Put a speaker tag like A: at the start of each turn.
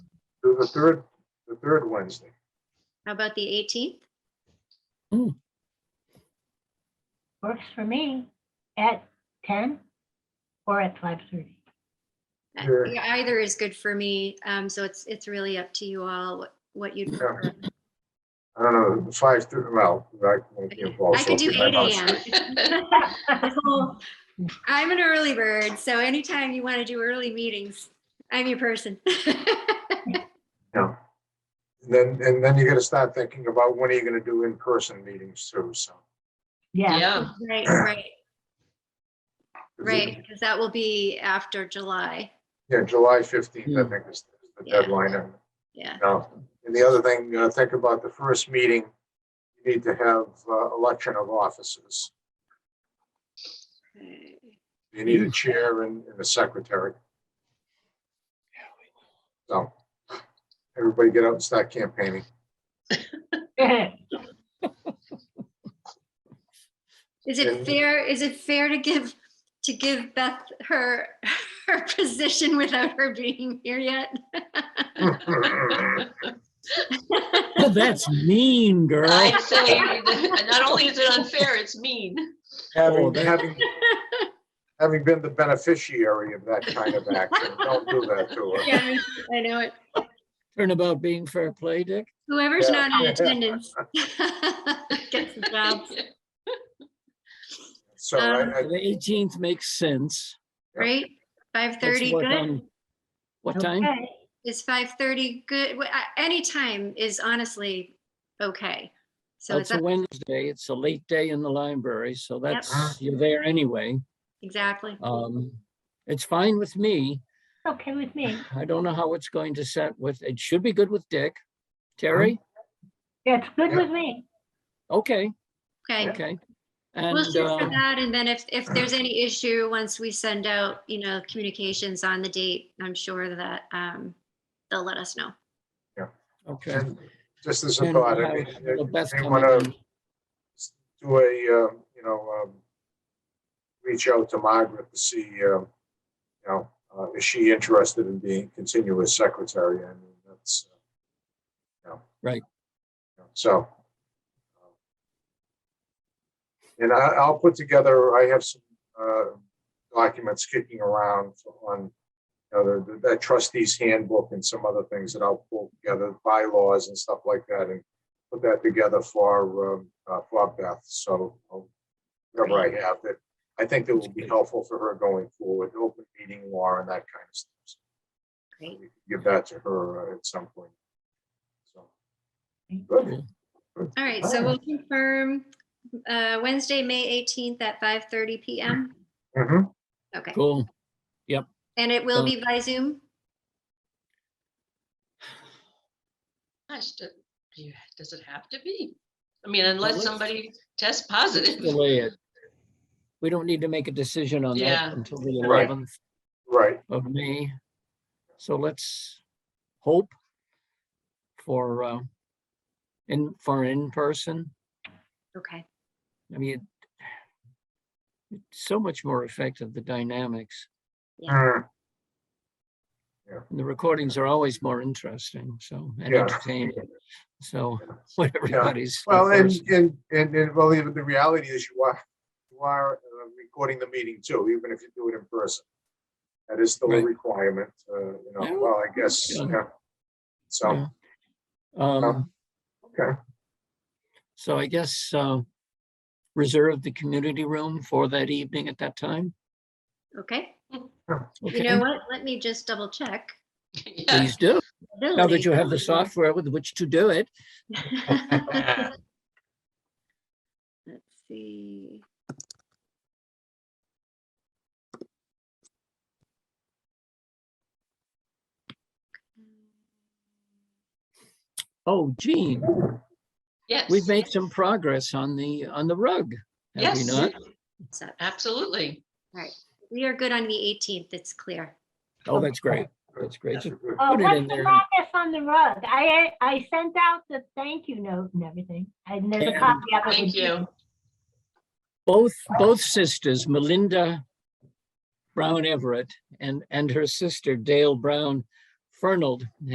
A: the the third, the third Wednesday.
B: How about the 18th?
C: Works for me at ten or at five thirty.
B: I-
A: Sure.
B: Uh, yeah, Either is good for me. Um, so it's, it's really up to you all what, what you'd
A: Yeah.
B: prefer.
A: I don't know, five, thir- well, I won't be involved.
B: I
A: so
B: could do
A: it'll be
B: eight
A: my
B: AM. So, I'm an early bird, so anytime you want to do early meetings, I'm your person.
A: month. Yeah. Then, and then you gotta start thinking about when are you gonna do in-person meetings too, so.
C: Yeah,
D: Yeah,
B: Right, right, right, because that will be after July.
A: Yeah, July fifteenth, I think is the
B: Yeah.
A: deadline. And
B: Yeah,
A: Now, and the other thing, uh, think about the first meeting, you need to have uh, election of officers.
B: Okay.
A: You need a chair and and a secretary. So, everybody get out and start campaigning.
B: Is
A: Yeah.
B: it fair, is it fair to give, to give Beth her, her position without her being here yet?
E: Oh, That's mean, girl.
D: I'd say, that- not only is it unfair, it's mean.
A: Having,
E: that-
A: having, having been the beneficiary of that kind of action, don't do that to her.
B: Yeah, I know it.
E: Turnabout being fair play, Dick.
B: Whoever's
A: Yeah.
B: not in attendance gets the job,
A: So I, I,
E: The eighteenth makes sense.
A: Yeah.
B: right? Five
E: Let's
B: thirty,
E: work
B: good?
E: on- What time?
C: okay,
B: Is five thirty good? Wh- I- Any time is honestly okay. So is
E: Oh, It's a
B: that,
E: Wednesday. It's a late day in the library, so
A: Ah.
E: that's, you're there anyway.
B: exactly.
E: Um, it's fine with me.
C: okay with me.
E: I don't know how it's going to set with, it should be good with Dick. Terry?
C: That's good with me.
E: Okay,
B: Okay.
E: okay.
B: Uh-huh. We'll
E: And,
B: shoot for
E: uh,
B: that. And then if, if there's any issue, once we send out, you know, communications on the date, I'm sure that, um, they'll let us know.
E: okay.
A: and just as a
E: And we'll
A: thought, I
E: have
A: mean,
E: the best
A: may
E: coming
A: wanna
E: in.
A: do a, uh, you know, um, reach out to Margaret to see, um, you know, uh, is she interested in being continuous secretary? I mean, that's, uh, you know.
E: Right.
A: you know, So. And I, I'll put together, I have some, uh, documents kicking around on, you know, the- the- that trustee's handbook and some other things that I'll pull together, bylaws and stuff like that, and put that together for, um, uh, for Beth, so I'll- whatever I have that, I think that will be helpful for her going forward, open meeting law and that kind of stuff. So
B: Great.
A: we can Give that to her uh, at some point. So,
C: Thank
A: Good.
B: All right, so we'll confirm, uh, Wednesday, May eighteenth at five thirty PM.
A: Mhm.
B: Okay,
E: Cool.
B: and it will be by Zoom?
D: Gosh, do- do you- Does it have to be? I mean, unless
E: let's-
D: somebody tests positive.
E: Delay it. We don't need to make a decision on
D: Yeah.
E: that until the
A: Right.
E: eleventh.
A: Right,
E: of May. So let's hope for, uh, in, for in-person.
B: Okay,
E: I mean, it- it's so much more effective, the dynamics.
A: Mm,
E: And the recordings are always more interesting, so, and
A: Yeah.
E: entertaining. So what everybody's.
A: well, and,
E: first-
A: and, and, and, well, even the reality is you are, you are uh, recording the meeting too, even if you do it in person. That is still a
E: Right.
A: requirement, uh, you know,
E: Yeah.
A: well, I guess,
E: Yeah.
A: yeah. So,
E: Yeah. Um,
A: okay,
E: so I guess, uh, reserve the community room for that evening at that time.
B: okay. You know
E: Okay,
B: what? Let me just double check.
D: Yeah.
E: please do. Now that
B: Ability.
E: you have the software with which to do it.
B: Let's see.
E: Oh, Gene.
D: Yes.
E: We've made some progress on the, on the rug, have we
D: Yes,
E: not?
B: So
D: absolutely.
B: we are good on the eighteenth, it's clear.
E: Oh, that's great. That's great.
A: that's good.
C: Uh,
E: Put it in
C: what's the
E: there.
C: progress on the rug? I, I sent out the thank you note and everything. I never
E: Yeah.
C: copy up.
D: Thank you.
E: Both, both sisters, Melinda Brown Everett and, and her sister Dale Brown Fernald